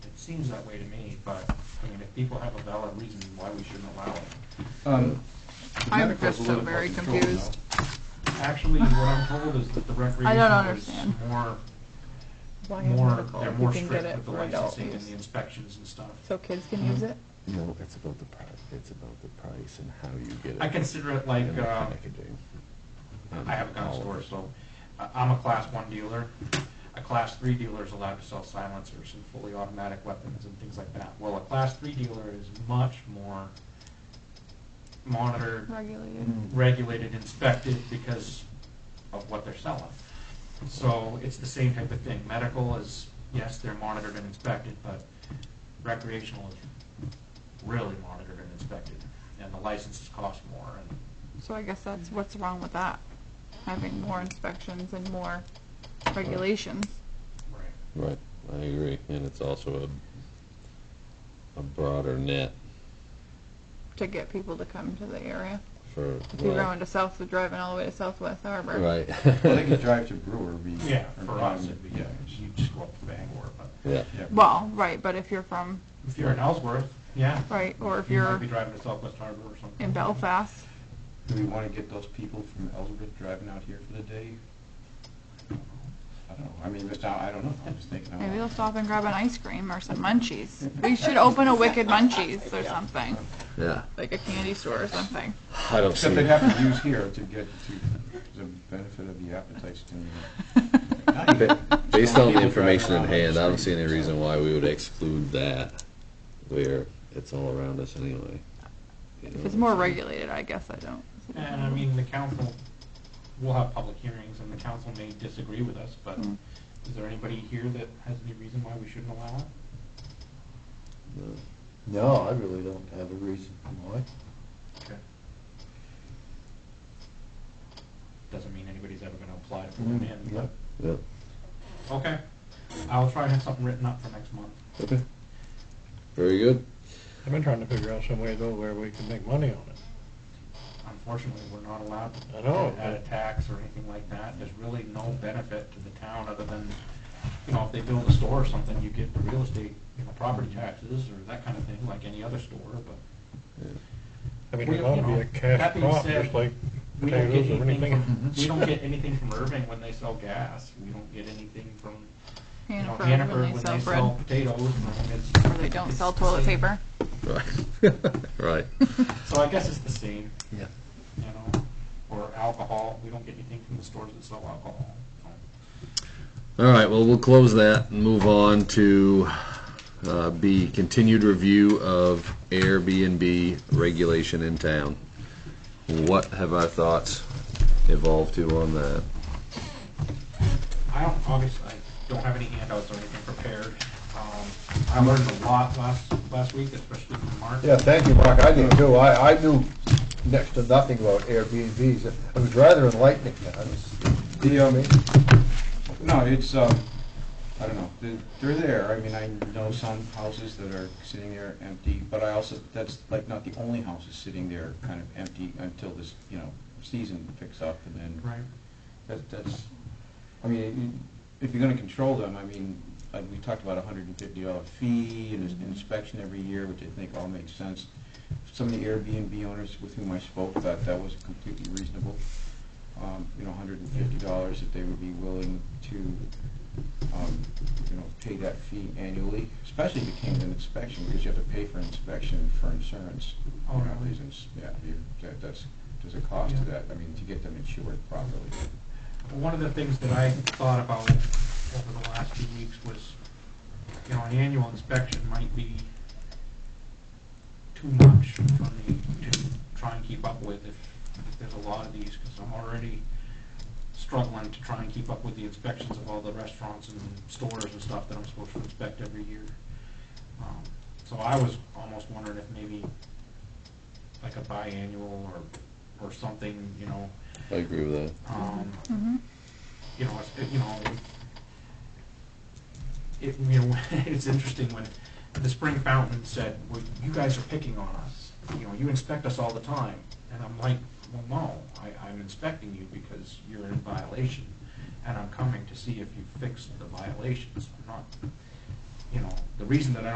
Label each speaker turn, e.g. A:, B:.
A: seems that way to me, but, I mean, if people have a valid reason why we shouldn't allow it.
B: Um, the
C: I'm
B: medical's a
C: just so
B: little more
C: very
B: controlled now.
C: confused.
A: Actually, what I'm told is that the
C: I don't
A: recreational is
C: understand.
A: more,
D: Why is
A: more,
D: medical
A: they're
D: if you
A: more
D: can get
A: strict
D: it
A: with the
D: for adult
A: licensing and
D: use?
A: the inspections and stuff.
D: So kids can use it?
E: No, it's about the price, it's about the price and how you get it.
A: I consider it like,
E: and the
A: uh,
E: packaging. and
A: I have a gun
E: all of
A: store,
E: it.
A: so I- I'm a class one dealer. A class three dealer is allowed to sell silencers and fully automatic weapons and things like that. Well, a class three dealer is much more monitored,
C: regulated.
A: Mm-hmm. regulated, inspected because of what they're selling. So it's the same type of thing. Medical is, yes, they're monitored and inspected, but recreational is really monitored and inspected. And the licenses cost more and
C: So I guess that's what's wrong with that, having more inspections and more regulations.
F: Right, I agree, and it's also a, a broader net
C: to get people to come to the area.
F: for,
C: If you're
F: well,
C: going to South, driving all the way to Southwest Harbor.
F: right.
B: Well, they could drive to Brewer, be.
A: Yeah,
B: or
A: for
B: down-
A: us, it'd be,
B: Yeah.
A: you just go up to Bangor, but
F: Yeah,
B: yeah.
C: Well, right, but if you're from,
A: if you're in Ellsworth, yeah.
C: right, or if
A: You might
C: you're
A: be driving to Southwest Harbor or something.
C: in Belfast,
B: Do we want to get those people from Ellsworth driving out here for the day? I don't know, I mean, Mr. I I don't know, I'm just thinking. out
C: maybe they'll
B: loud.
C: stop and grab an ice cream or some munchies. We should open a Wicked Munchies or something,
F: yeah.
C: like a candy store or something.
F: I don't see,
B: Except they'd have to use here to get to the benefit of the appetite stimulus.
F: ba- based on the information in hand, I don't see any reason why we would exclude that, where it's all around us anyway. You
C: If
F: know,
C: it's more regulated, I guess I don't.
A: And I mean, the council, we'll have public hearings and the council may disagree with us, but
G: Hmm.
C: Mm.
A: is there anybody here that has any reason why we shouldn't allow it?
F: no.
G: No, I really don't have a reason why.
A: Okay. Doesn't mean anybody's ever gonna apply to put one in,
G: Hmm.
A: but,
F: Yeah,
A: okay. I'll try and have something written up for next month.
F: okay. Very good.
G: I've been trying to figure out some way though where we can make money on it.
A: Unfortunately, we're not allowed to
G: I know.
A: add a tax or anything like that. There's really no benefit to the town other than, you know, if they build a store or something, you get the real estate, you know, property taxes or that kind of thing, like any other store, but
G: I mean,
A: We-
G: it ought to
A: you
G: be
A: know,
G: a cash
A: that being
G: crop,
A: said,
G: just like
A: we don't get
G: potatoes or
A: anything
G: anything.
A: from, we don't get anything from Irving when they sell gas. We don't get anything from, you know,
C: Hannaford,
A: Hannaford when they sell
C: bread,
A: potatoes. I mean, it's-
C: or they don't
A: it's
C: sell
A: the
C: toilet
A: same.
C: paper.
F: Right, right.
A: So I guess it's the same,
F: Yeah.
A: you know, or alcohol. We don't get anything from the stores that sell alcohol.
F: All right, well, we'll close that and move on to uh, B, continued review of Airbnb regulation in town. What have our thoughts evolved to on that?
A: I don't, obviously, I don't have any handouts or anything prepared. Um, I learned a lot last, last week, especially from Mark.
G: Yeah, thank you, Mark, I did too, I, I knew next to nothing about Airbnbs, it was rather enlightening, I was,
B: The, um, no, it's, um, I don't know, They- they're there, I mean, I know some houses that are sitting there empty, but I also, that's like not the only houses sitting there kind of empty until this, you know, season picks up and then.
A: Right.
B: That, that's, I mean, i- if you're gonna control them, I mean, like, we talked about a hundred and fifty dollar fee and an inspection every year, which I think all makes sense. Some of the Airbnb owners with whom I spoke, that, that was completely reasonable. Um, you know, hundred and fifty dollars if they would be willing to, um, you know, pay that fee annually, especially if it came to an inspection, because you have to pay for inspection for insurance.
A: Oh,
B: you know,
A: really?
B: Reasons, yeah, you, that, that's, there's a cost to
A: Yeah.
B: that, I mean, to get them insured properly.
A: One of the things that I thought about over the last few weeks was, you know, an annual inspection might be too much for me to try and keep up with if, if there's a lot of these, because I'm already struggling to try and keep up with the inspections of all the restaurants and stores and stuff that I'm supposed to inspect every year. Um, So I was almost wondering if maybe like a biannual or, or something, you know,
F: I agree with that.
A: um,
C: Mm-hmm.
A: you know, it's- you know, it, you know, it's interesting when the spring fountain said, well, you guys are picking on us. You know, you inspect us all the time. And I'm like, well, no, I, I'm inspecting you because you're in violation. And I'm coming to see if you fix the violations. I'm not, you know, the reason that I